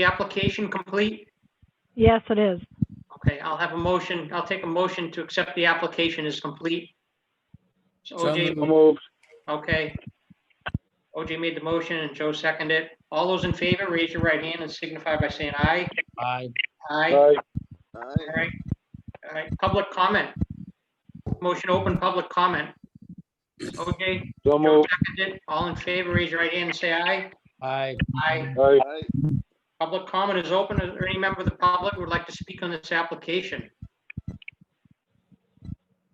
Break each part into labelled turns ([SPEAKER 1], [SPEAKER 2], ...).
[SPEAKER 1] the application complete?
[SPEAKER 2] Yes, it is.
[SPEAKER 1] Okay, I'll have a motion, I'll take a motion to accept the application as complete. So
[SPEAKER 3] So
[SPEAKER 1] OJ,
[SPEAKER 3] moved.
[SPEAKER 1] okay. OJ made the motion and Joe seconded. it. All those in favor, raise your right hand and signify by saying aye.
[SPEAKER 3] Aye.
[SPEAKER 1] Aye. All
[SPEAKER 3] Aye.
[SPEAKER 1] right. All right, public comment. Motion to open public comment. OJ,
[SPEAKER 3] So
[SPEAKER 1] Joe
[SPEAKER 3] moved.
[SPEAKER 1] seconded. All in favor, raise your right hand and say aye.
[SPEAKER 3] Aye.
[SPEAKER 1] Aye.
[SPEAKER 3] Aye.
[SPEAKER 1] Public comment is open. Is there any member of the public who would like to speak on this application?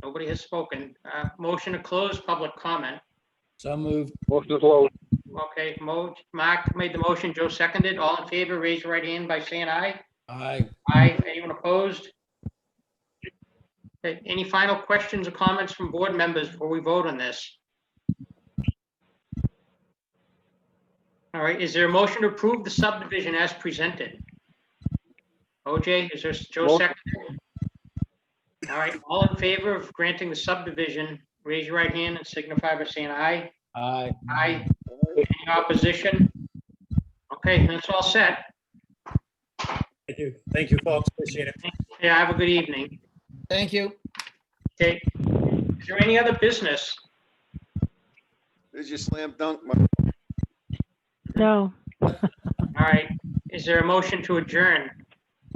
[SPEAKER 1] Nobody has spoken. Uh, Motion to close public comment.
[SPEAKER 3] So moved. Motion to close.
[SPEAKER 1] Okay, Mo, Mark made the motion, Joe seconded. All in favor, raise your right hand by saying aye.
[SPEAKER 3] Aye.
[SPEAKER 1] Aye. Anyone opposed? Okay, any final questions or comments from board members before we vote on this? All right, is there a motion to approve the subdivision as presented? OJ, is there, Joe
[SPEAKER 3] Motion.
[SPEAKER 1] second? All right, all in favor of granting the subdivision, raise your right hand and signify by saying aye.
[SPEAKER 3] Aye.
[SPEAKER 1] Aye. Any opposition? Okay, that's all set.
[SPEAKER 4] Thank you. Thank you, folks. Appreciate it.
[SPEAKER 1] Yeah, have a good evening.
[SPEAKER 3] Thank you.
[SPEAKER 1] Okay, is there any other business?
[SPEAKER 5] There's your slam dunk, my
[SPEAKER 2] No.
[SPEAKER 1] All right, is there a motion to adjourn?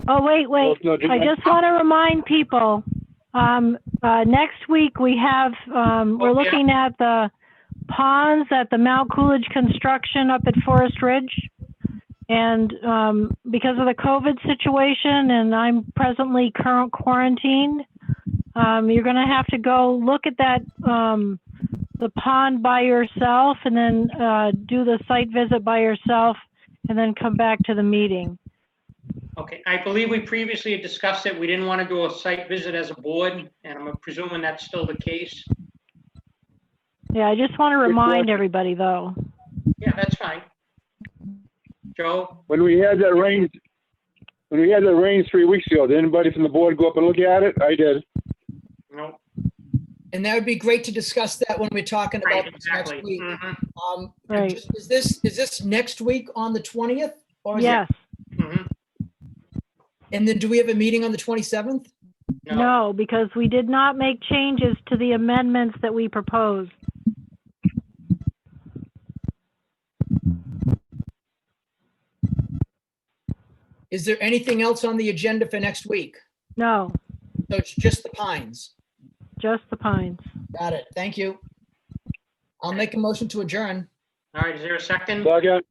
[SPEAKER 2] Oh, wait, wait.
[SPEAKER 3] Motion to
[SPEAKER 2] I
[SPEAKER 3] adjourn.
[SPEAKER 2] just want to remind people, um, uh, next week we have, um,
[SPEAKER 1] Oh,
[SPEAKER 2] we're
[SPEAKER 1] yeah.
[SPEAKER 2] looking at the ponds at the Mount Coolidge Construction up at Forest Ridge. And, um, because of the COVID situation and I'm presently current quarantined, um, you're going to have to go look at that, um, the pond by yourself and then, uh, do the site visit by yourself and then come back to the meeting.
[SPEAKER 1] Okay, I believe we previously had discussed it. We didn't want to do a site visit as a board, and I'm presuming that's still the case.
[SPEAKER 2] Yeah, I just want to remind
[SPEAKER 3] question.
[SPEAKER 2] everybody, though.
[SPEAKER 1] Yeah, that's fine. Joe,
[SPEAKER 3] When we had that rain, when we had that rain three weeks ago, did anybody from the board go up and look at it? I did.
[SPEAKER 1] no,
[SPEAKER 6] And that would be great to discuss that when we're talking
[SPEAKER 1] right,
[SPEAKER 6] about this next
[SPEAKER 1] exactly.
[SPEAKER 6] week.
[SPEAKER 1] Mhm,
[SPEAKER 6] Um,
[SPEAKER 2] Right.
[SPEAKER 6] just- Is this, is this next week on the 20th? Or is it-
[SPEAKER 2] Yes.
[SPEAKER 1] mhm,
[SPEAKER 6] And then do we have a meeting on the 27th?
[SPEAKER 1] No,
[SPEAKER 2] No, because we did not make changes to the amendments that we proposed.
[SPEAKER 6] Is there anything else on the agenda for next week?
[SPEAKER 2] No,
[SPEAKER 6] So it's just the pines.
[SPEAKER 2] just the pines.
[SPEAKER 6] Got it. Thank you. I'll make a motion to adjourn.
[SPEAKER 1] all right, is there a second?
[SPEAKER 3] Second.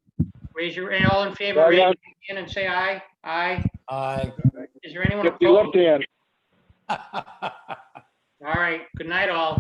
[SPEAKER 1] Raise your, and all in favor,
[SPEAKER 3] Second.
[SPEAKER 1] raise your hand and say aye. Aye.
[SPEAKER 3] Aye.
[SPEAKER 1] Is there anyone
[SPEAKER 3] Lift your left
[SPEAKER 1] opposed?
[SPEAKER 3] hand.
[SPEAKER 1] All right, good night, all.